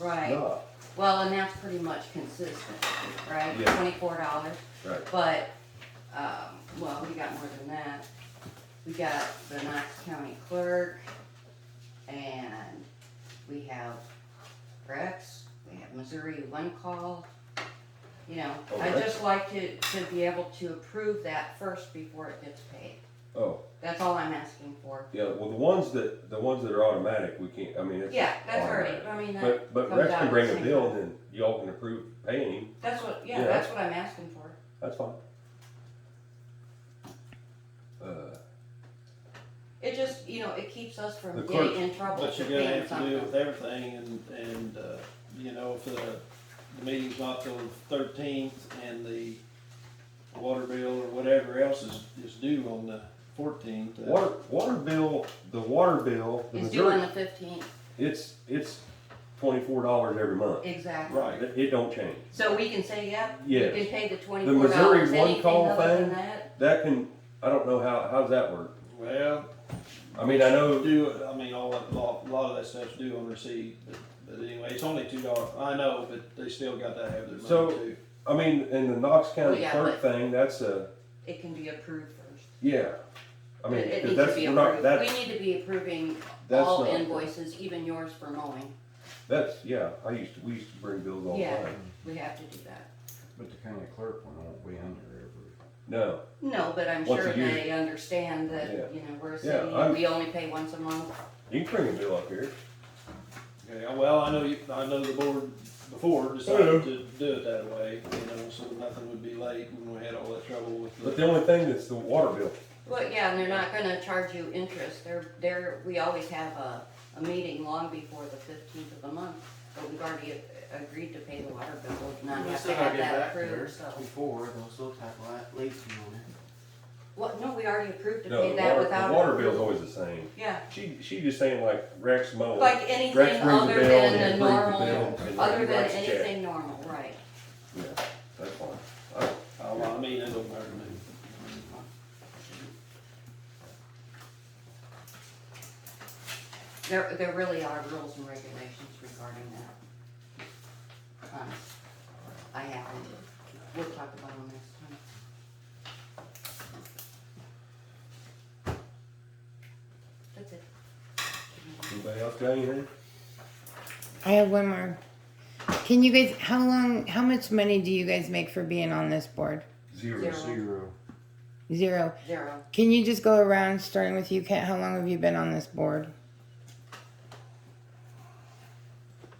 right? not, Well, and that's pretty much consistent, right? Yeah. Twenty-four dollars, right, but, um, well, we got more than that. We got the Knox County Clerk, and we have Rex, we have Missouri One Call. You know, I Okay. just like to, to be able to approve that first before it gets paid. oh, That's all I'm asking for. yeah, well, the ones that, the ones that are automatic, we can't, I mean, it's. Yeah, that's automatic. already, I mean, that, But, but comes Rex out can at bring the a same bill, time. then y'all can approve paying him, that's what, yeah, Yeah. that's what I'm asking for. that's fine. Uh, It just, you know, it keeps us from The getting clerk- in trouble But for you're gonna paying have to do it something. with everything and, and, uh, you know, if the, the meeting's not till thirteenth and the water bill or whatever else is, is due on the fourteenth. water, water bill, the water bill, the It's due on majority, the fifteenth, it's, it's twenty-four dollars every month. exactly. Right, It, it don't change. So we can say, yep, you Yes. can pay the twenty-four Missouri dollars, one anything call other than thing? that. That can, I don't know how, how does that work? well, I mean, I know, do, I mean, all that, lot, lot of that stuff's due on receipt, but, but anyway, it's only two dollars, I know, but they still got to have their So- money too. I mean, in the Knox County Oh, yeah, clerk thing, that's a, It can be approved first. yeah. I mean, It- it 'cause needs to that's, be we're not, approved. that, We need to be approving that's all not, invoices, even yours for mowing. that's, yeah, I used to, we used to bring bills all the Yeah. time. We have to do that. But the county clerk one won't be under every, No, No, but I'm Once sure a year. they understand Yeah. that, you know, we're a Yeah, city, I'm- and we only pay once a month. you can bring a bill up here. Okay, well, I know you, I know the board before decided to do it that way, you know, so nothing would be late when we had all that trouble with the. But the only thing that's the water bill. Well, yeah, and they're not gonna charge you interest, they're, they're, we always have a, a meeting long before the fifteenth of the month, but we've already a- agreed to pay the water bill, we not have to have that approved, so. Before, those little type of leaks on it. What, no, we already approved to No, pay the that water, without. the water approval. bill's always the same. Yeah, She, she just saying like Rex mowing. like Rex anything brings a other bill and than the he approves the normal, bill. and other he than writes a check. anything normal, right, Yeah, that's fine. I- Oh, well, I mean, it don't matter to me. there, there really are rules and regulations regarding that. Um, I haven't, we'll talk about them next time. That's it. Anybody else got anything? I have one more. Can you guys, how long, how much money do you guys make for being on this board? Zero. Zero. zero, Zero. Zero, Can you just go around starting with you, Kent? How long have you been on this board? I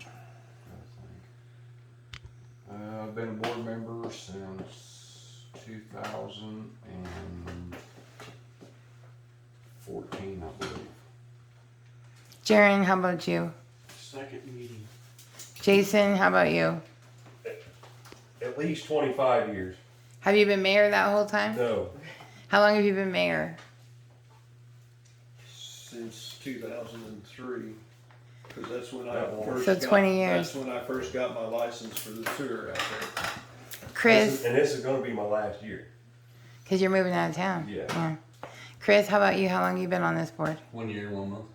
think. Uh, I've been a board member since two thousand and fourteen, I believe. Jaren, how about you? Second meeting. Jason, how about you? At least twenty-five years. Have you been mayor that whole time? No, How long have you been mayor? Since two thousand and three, cause that's when I That long. first. So got- 20 years. That's when I first got my license for the sewer out there. This is- Chris, And this is gonna be my last year. because you're moving out of town. Yeah. Chris, how about you? How long have you been on this board? One year, one month.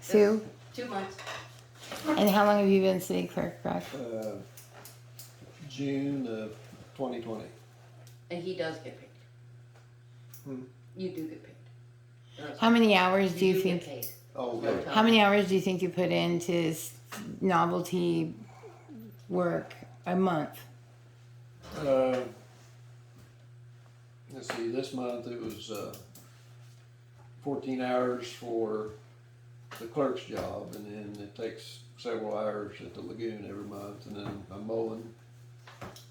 Sue? two months, And how long have you been city clerk, Brad? Uh, June of twenty twenty. and he does get paid. Hmm. You do get paid. Yes. How many hours do you get think paid. Oh, No yeah. time. How many hours do you think you put into s- novelty work a month? Uh, let's see, this month it was, uh, fourteen hours for the clerk's job, and then it takes several hours at the lagoon every month, and then I'm mowing,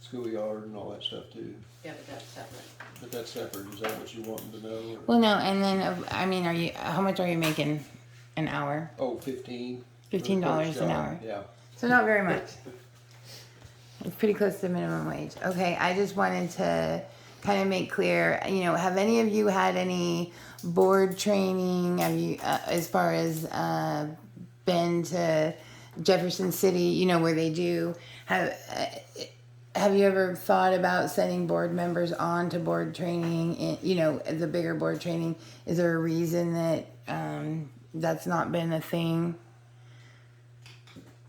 schoolyard and all that stuff too, Yeah, but that's separate. but that's separate, is that what you wanted to know? or- Well, no, and then uh, I mean, are you how much are you making an hour? Oh, fifteen. for the Fifteen dollars clerk's an job, hour, Yeah, so not very much. It's pretty close to minimum wage. Okay, I just wanted to kind of make clear. You know, have any of you had any board training? Have you, uh, as far as uh, been to Jefferson City? You know where they do have. Uh, have you ever thought about sending board members on to board training? in- You know, the bigger board training. Is there a reason that um, that's not been a thing?